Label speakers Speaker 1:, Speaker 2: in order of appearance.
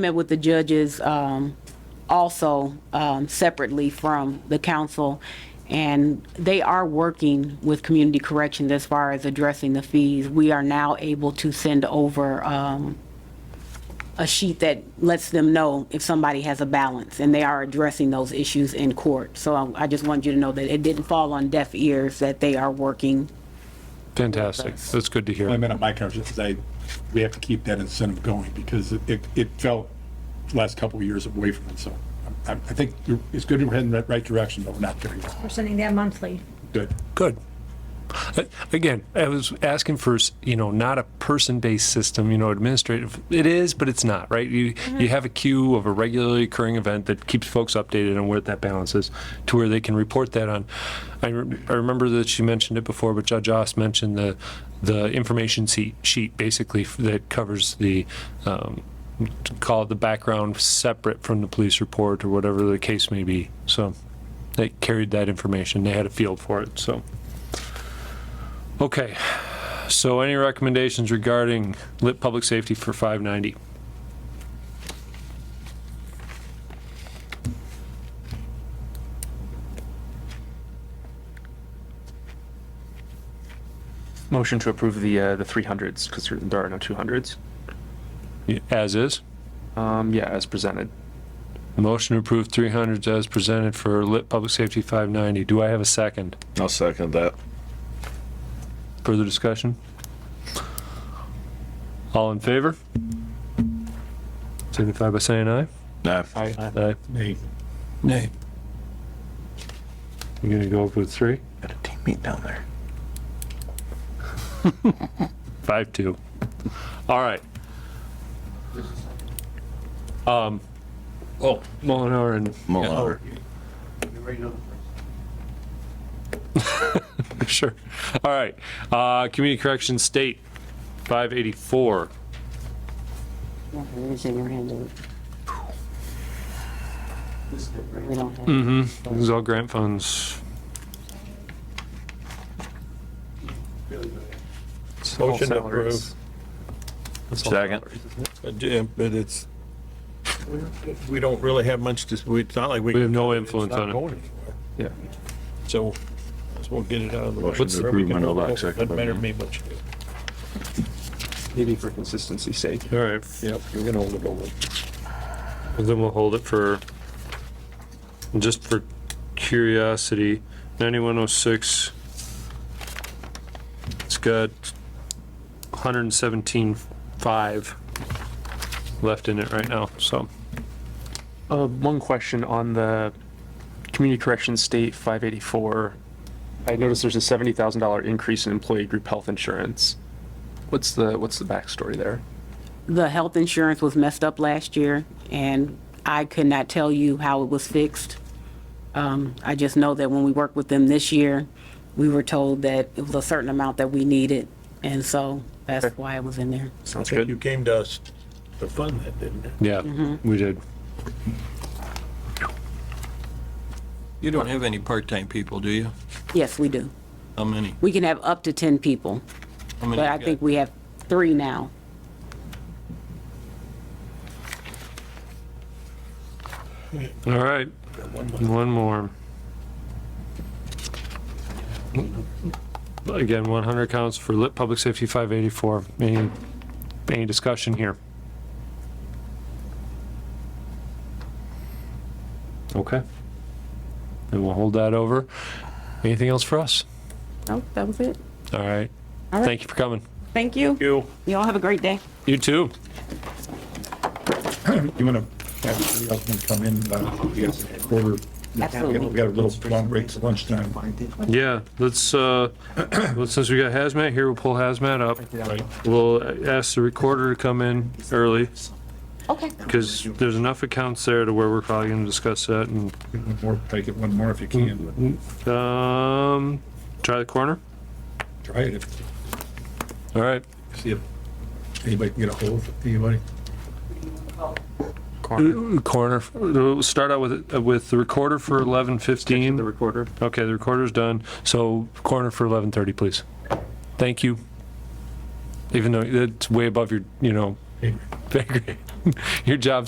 Speaker 1: Met with the judges um, also um, separately from the council, and they are working with community corrections as far as addressing the fees. We are now able to send over um, a sheet that lets them know if somebody has a balance, and they are addressing those issues in court. So um, I- I just wanted you to know that it didn't fall on deaf ears, that they are working.
Speaker 2: Fantastic. That's good to
Speaker 3: I
Speaker 2: hear.
Speaker 3: meant on my conversation, I, we have to keep that incentive going because it- it, it fell the last couple of years away from it, so I, I think you're- it's good we're heading in the right direction, but we're not very
Speaker 4: We're sending that monthly.
Speaker 3: good.
Speaker 2: Good. Uh, Again, I was asking for, s- you know, not a person-based system, you know, administrative. It is, but it's not, right? You, you have a queue of a regularly occurring event that keeps folks updated on where that balance is to where they can report that on. I, re- I remember that she mentioned it before, but Judge Oss mentioned the, the information sheet, sheet basically f- that covers the, um, to call it the background separate from the police report or whatever the case may be. So they carried that information. They had a field for it, so. Okay, so any recommendations regarding lit public safety for 590?
Speaker 5: Motion to approve the, uh, the 300s, because there are no 200s.
Speaker 2: Y- As is?
Speaker 5: Um, yeah, as presented.
Speaker 2: Motion to approve 300s as presented for lit public safety 590. Do I have a second?
Speaker 6: I'll second that.
Speaker 2: Further discussion? All in favor? Signify by saying aye.
Speaker 6: Nah.
Speaker 5: I,
Speaker 2: Aye.
Speaker 3: Nay,
Speaker 2: You're gonna go up with three?
Speaker 6: Got a teammate down there.
Speaker 2: Five two. All right. Um, oh, Mullenhour and
Speaker 6: Mullenhour.
Speaker 2: Sure. All right. Uh, community corrections state, five eighty-four. Mm-hmm. This is all grant funds.
Speaker 5: Motion to approve.
Speaker 6: Second.
Speaker 7: Uh, yeah, But it's, we don't really have much to, we- it's not like we.
Speaker 2: We have
Speaker 7: can
Speaker 2: no
Speaker 7: cut
Speaker 2: influence
Speaker 7: It's not
Speaker 2: on it.
Speaker 7: going anywhere.
Speaker 5: Yeah.
Speaker 7: So, let's we'll get it out of the. way.
Speaker 6: Motion to
Speaker 7: Whatever we
Speaker 6: approve
Speaker 7: can
Speaker 6: Mandel
Speaker 7: do,
Speaker 6: Act, second by
Speaker 7: Doesn't matter to
Speaker 6: Mandel.
Speaker 7: me much.
Speaker 5: Maybe for consistency's sake.
Speaker 2: All right.
Speaker 7: Yep, you're gonna hold it over.
Speaker 2: Then we'll hold it for, just for curiosity, ninety-one oh six. It's got hundred and seventeen five left in it right now, so.
Speaker 5: Uh, one question on the community corrections state 584. I noticed there's a $70,000 increase in employee group health insurance. What's the, what's the backstory there?
Speaker 1: The health insurance was messed up last year, and I could not tell you how it was fixed. Um, I just know that when we worked with them this year, we were told that it was a certain amount that we needed, and so that's why it was in there.
Speaker 5: Sounds
Speaker 7: You
Speaker 5: good.
Speaker 7: came to us to fund that, didn't you?
Speaker 2: Yeah, we did.
Speaker 8: You don't have any part-time people, do you?
Speaker 1: Yes, we do.
Speaker 8: How many?
Speaker 1: We can have up to 10 people,
Speaker 8: How many
Speaker 1: but
Speaker 8: you
Speaker 1: I
Speaker 8: got?
Speaker 1: think we have three now.
Speaker 2: All right, one more. Again, 100 counts for lit public safety 584. Any, any discussion here? Okay. Then we'll hold that over. Anything else for us?
Speaker 1: Nope, Oh, that was it.
Speaker 2: All right.
Speaker 1: right.
Speaker 2: Thank you for coming.
Speaker 1: Thank you.
Speaker 7: You.
Speaker 1: You all have a great day.
Speaker 2: You too.
Speaker 3: you wanna, have somebody else wanna come in, uh, we got a quarter, we
Speaker 1: Absolutely.
Speaker 3: got a little long break at lunchtime.
Speaker 2: Yeah, let's, uh, well, since we got hazmat here, we'll pull hazmat up. We'll ask the recorder to come in early.
Speaker 1: Okay.
Speaker 2: Because there's enough accounts there to where we're probably gonna discuss that and,
Speaker 3: One more, take it one more if you can, but
Speaker 2: um, try the corner?
Speaker 3: try it if,
Speaker 2: All right.
Speaker 3: see if anybody can get a hold of anybody.
Speaker 2: Corner, we'll start out with, with the recorder for eleven
Speaker 5: The
Speaker 2: fifteen.
Speaker 5: recorder.
Speaker 2: Okay, the recorder's done, so corner for eleven thirty, please. Thank you. Even though it's way above your, you know, your job